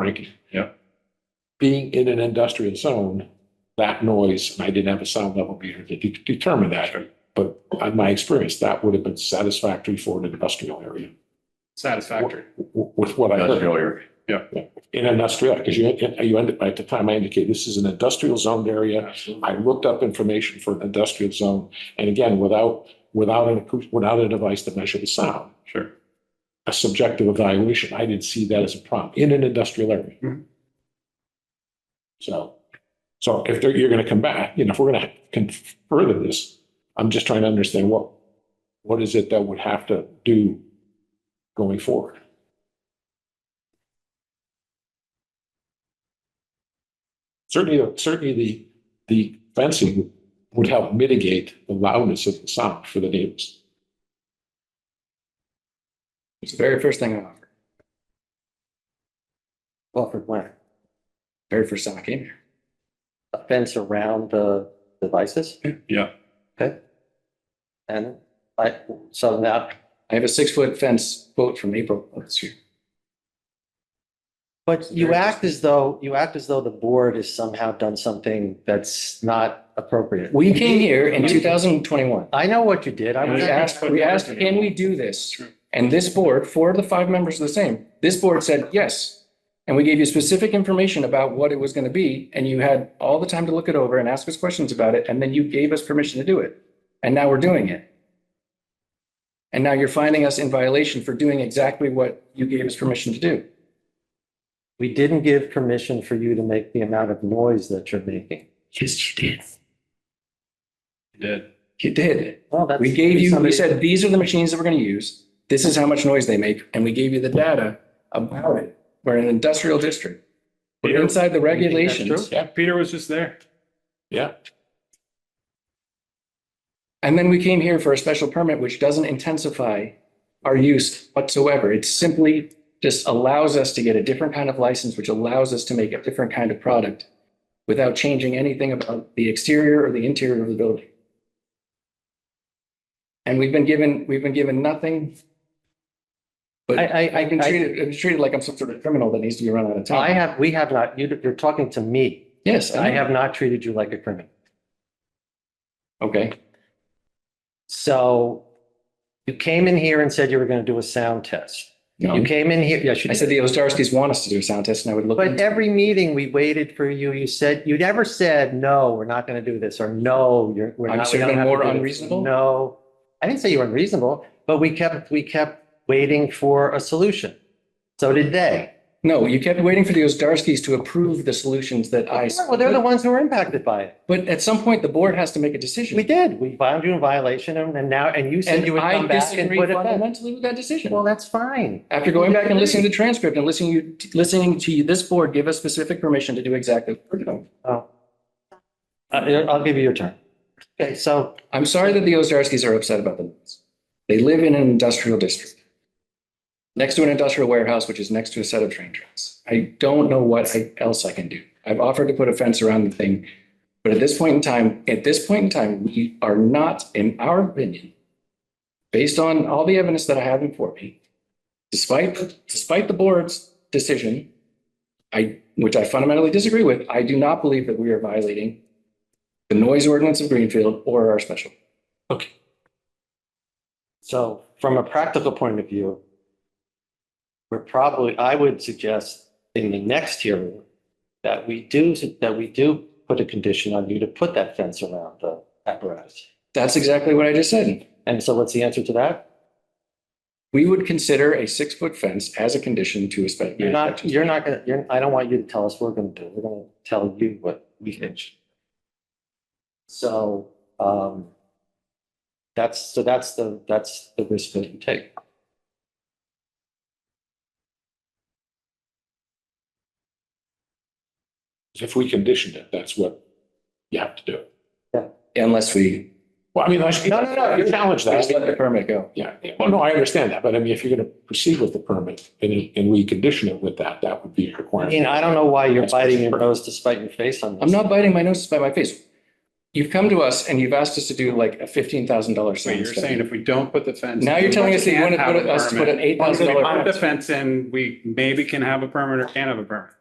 Frank. Yeah. Being in an industrial zone, that noise, and I didn't have a sound level meter to de- determine that. But on my experience, that would have been satisfactory for an industrial area Satisfactory. w- with what I heard. Industrial In industrial, because you, you ended, at the time I indicated, this is an industrial zoned area. Absolutely. I looked up information for an industrial zone, and again, without, without an, acou- without a device to measure the sound, Sure. a subjective evaluation, I didn't see that as a problem in an industrial area. Mhm. So, so if they're- you're gonna come back, you know, if we're gonna con- further this, I'm just trying to understand what, what is it that would have to do going forward? Certainly, certainly the, the fencing would help mitigate the loudness of the sound for the neighbors. It's the very first thing I offer. Offered when? Very first time I came here. A fence around the devices Yeah, and I, so now, I have a six foot fence quote from April of this year. but you act as though, you act as though the board has somehow done something that's not appropriate. We came here in two thousand and twenty-one. I know what you did. I We was, Yeah. asked, we asked, can we do it's this? true. And this board, four of the five members are the same. This board said yes. And we gave you specific information about what it was going to be, and you had all the time to look it over and ask us questions about it, and then you gave us permission to do it. And now we're doing it. And now you're finding us in violation for doing exactly what you gave us permission to do. we didn't give permission for you to make the amount of noise that you're making. Yes, you did. You did. You did. Well, that's. We gave you, we somebody- said, these are the machines that we're gonna use. This is how much noise they make, and we gave you the data about it. We're in an industrial district. We're inside the regulations. Yeah, Peter was just there. Yeah, And then we came here for a special permit, which doesn't intensify our use whatsoever. It simply just allows us to get a different kind of license, which allows us to make a different kind of product without changing anything about the exterior or the interior of the building. And we've been given, we've been given nothing. But I, I, I've been I, treated, I've been treated like I'm some sort of criminal that needs to be run out of I town. have, we have not, you, you're talking to me. Yes, I I have. have not treated you like a criminal. Okay, So you came in here and said you were going to do a sound test. You no. came in here, yes, you I did. said the Ozdarskis want us to do a sound test and I would look. But into it. every meeting we waited for you, you said, you never said, no, we're not going to do this, or no, you're, we're I'm not. we sure don't been have to more do this." unreasonable? No, I didn't say you were unreasonable, but we kept, we kept waiting for a solution. So did they. No, you kept waiting for the Ozdarskis to approve the solutions that I. Well, they're the ones who were impacted by it. But at some point, the board has to make a decision. We did. We found you in violation and and now, and you said And you would I come back and disagree put it back. fundamentally with that decision. Well, that's fine. After going back and listening to the transcript and listening, you, listening to you- this board give us specific permission to do exactly. what we're doing. Oh. Uh, I'll give you your turn. Okay, so I'm sorry that the Ozdarskis are upset about the noise. They live in an industrial district. Next to an industrial warehouse, which is next to a set of train tracks. I don't know what I- else I can do. I've offered to put a fence around the thing. But at this point in time, at this point in time, we are not, in our opinion, based on all the evidence that I have before me, despite, despite the board's decision, I, which I fundamentally disagree with, I do not believe that we are violating the noise ordinance of Greenfield or our special. So from a practical point of view, we're probably, I would suggest in the next hearing that we do, that we do put a condition on you to put that fence around the apparatus. That's exactly what I just said. And so what's the answer to that? We would consider a six foot fence as a condition to a special. You're not, you're not gonna, you're, I don't want you to tell us what we're gonna do. We're gonna tell you what we can. ch- So, um, that's, so that's the, that's the risk that you take. if we conditioned it, that's what you have to do. Unless we Well, I mean, I should. No, no, no, You challenge just let the that. permit go. Yeah, well, no, I understand that, but I mean, if you're gonna proceed with the permit and, and we condition it with that, that would be a I mean, requirement. I don't know why you're biting your nose to spite your face on this. I'm not biting my nose to spite my face. You've come to us and you've asked us to do like a fifteen thousand dollar So sign you're saying study. if we don't put the fence. Now you're telling us that you we want to can't have put a us to put permit. an eight Once thousand we dollar. put the fence in, we maybe can have a permit or can't have a permit.